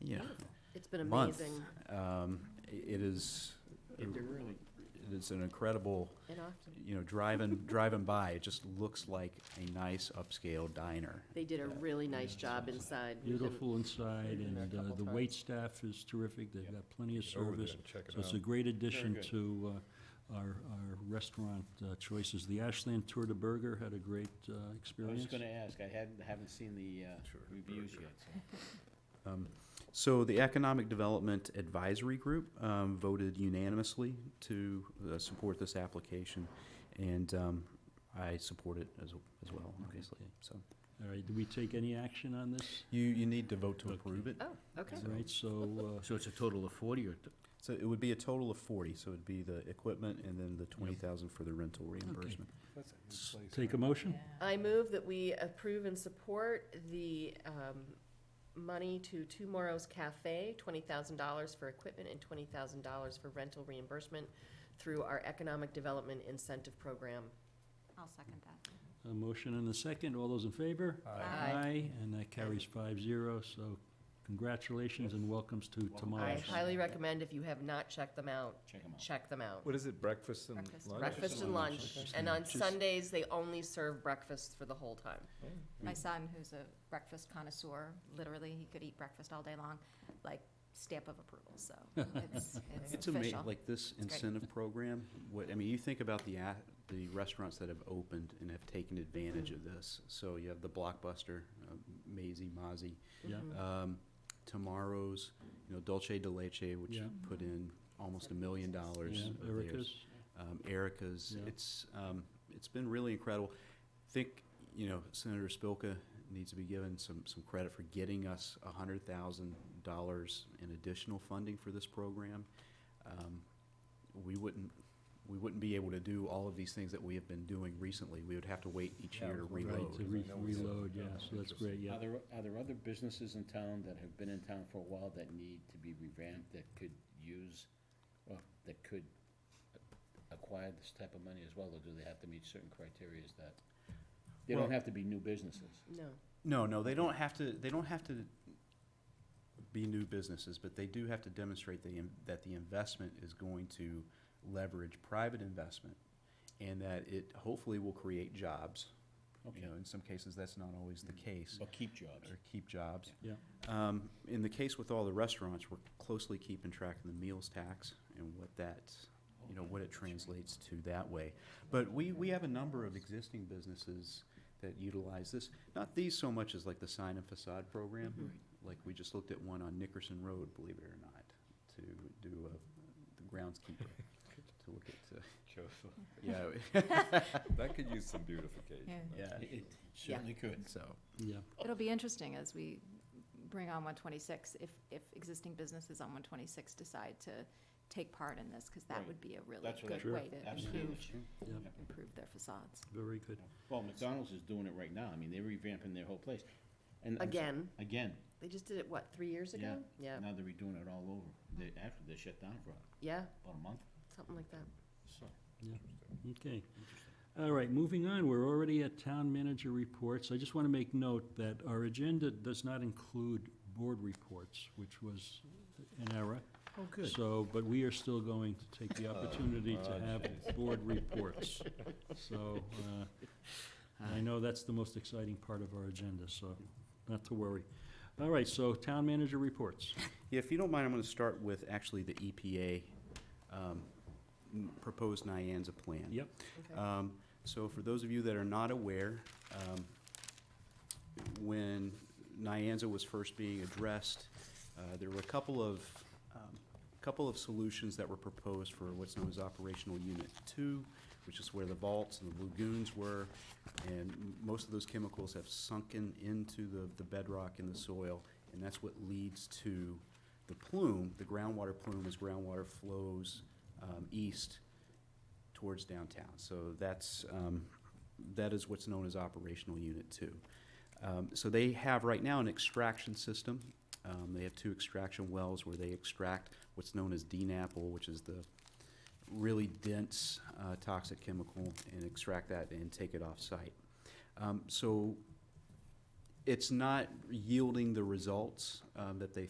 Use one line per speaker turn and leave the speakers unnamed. you know,
It's been
month.
amazing
Um, i- It is,
It- They're really,
it is an incredible,
and often.
you know, driving, driving by, it just looks like a nice upscale diner.
They did a really nice job inside. We didn't-
beautiful inside,
Been there
and
a
uh,
couple
the
times.
waitstaff is terrific, they've got plenty of
Get over there
service.
and check it
So it's
out.
a great addition
good.
to uh, our, our restaurant uh, choices. The Ashland Tour de Burger had a great uh,
I was
experience.
just gonna ask, I hadn't, haven't seen the, uh,
Sure,
reviews
burger.
yet, so.
Um, So the Economic Development Advisory Group um, voted unanimously to uh, support this application, and um, I support it as, as well, obviously, so.
All right, do we take any action on this?
You, you need to vote to
Okay.
approve it.
Oh, okay.
All
Oh,
right, so, uh,
So it's a total of forty or?
So it would be a total of forty, so it'd be the equipment and then the twenty thousand for the rental reimbursement.
That's a good
s-
place,
take a
right?
motion?
I move that we approve and support the um, money to Tomorrow's Cafe, $20,000 for equipment and $20,000 for rental reimbursement through our Economic Development Incentive Program.
I'll second that.
A motion and a second, all those in favor?
Aye.
and that carries five zero, so congratulations and welcomes to
I
tomorrow's.
highly recommend if you have not checked them out,
Check them out.
check them out.
What is it, breakfast and
Breakfast.
lunch?
Breakfast and lunch, and on Sundays, they only serve breakfast for the whole time.
My son, who's a breakfast connoisseur, literally, he could eat breakfast all day long, like stamp of approval, so it's, it's
It's amazing,
official.
like this
great.
incentive program, what, I mean, you think about the, a- the restaurants that have opened and have taken advantage of this. So you have the Blockbuster, uh, Maisie, Mozzie,
Yeah.
Mm-hmm.
Uh,
um, Tomorrow's, you know, Dolce de Leche, which
Yeah.
put in almost a million dollars.
Yeah,
of theirs.
Erica's,
um, Erica's.
Yeah.
It's um, it's been really incredible. I think you know Senator Spilka needs to be given some some credit for getting us a hundred thousand dollars in additional funding for this program. Um, we wouldn't. We wouldn't be able to do all of these things that we have been doing recently. We would have to wait each
Yeah,
year to
right,
right, to
reload.
re-
I know we said-
reload, yeah,
yeah,
so that's great, yeah.
Are there, are there other businesses in town that have been in town for a while that need to be revamped, that could use, well, that could acquire this type of money as well, or do they have to meet certain criteria that? They
Well-
don't have to be new businesses.
No.
No, no, they don't have to. They don't have to be new businesses, but they do have to demonstrate the, in- that the investment is going to leverage private investment, and that it hopefully will create jobs. You
Okay, Mm.
know, in some cases, that's not always the case,
but keep jobs.
or keep jobs.
Yeah.
Um, in the case with all the restaurants, we're closely keeping track of the meals tax and what that, you know, what it translates to that way. But we, we have a number of existing businesses that utilize this, not these so much as like the sign and facade program. Like, we just looked at one on Nickerson Road, believe it or not, to do a, the groundskeeper, to look at, uh, yeah,
That could use some beautification.
Yeah.
yeah,
It certainly could.
so.
Yeah,
It'll be interesting as we bring on one twenty-six, if, if existing businesses on one twenty-six decide to take part in this, because that
Right.
would be a really
That's what I-
good
Sure.
way to
Absolutely.
improve,
yeah,
improve their facades.
very good.
Well, McDonald's is doing it right now. I mean, they're revamping their whole place. And I'm s-
Again,
Again,
they just did it, what, three years ago?
yeah.
Yeah,
Now they're redoing it all over. They, actually, they shut down for
yeah,
about a month,
something like that.
so.
Okay. All right, moving on, we're already at town manager reports. I just want to make note that our agenda does not include board reports, which was an error.
Oh,
So, but we are still going to take the opportunity to have board reports. So, uh, I know that's the most exciting part of our agenda, so not to worry. All right, so town manager reports.
Yeah, if you don't mind, I'm gonna start with actually the EPA, um, n- proposed Nyanza plan.
Yep.
Okay.
Um, so for those of you that are not aware, um, when Nyanza was first being addressed, uh, there were a couple of, um, couple of solutions that were proposed for what's known as Operational Unit Two, which is where the vaults and the lagoons were, and m- most of those chemicals have sunken into the, the bedrock in the soil, and that's what leads to the plume, the groundwater plume, as groundwater flows, um, east towards downtown. So that's, um, that is what's known as operational unit two. Um, so they have right now an extraction system. Um, they have two extraction wells where they extract what's known as DNAPL, which is the really dense uh, toxic chemical, and extract that and take it off site. Um, so it's not yielding the results um, that they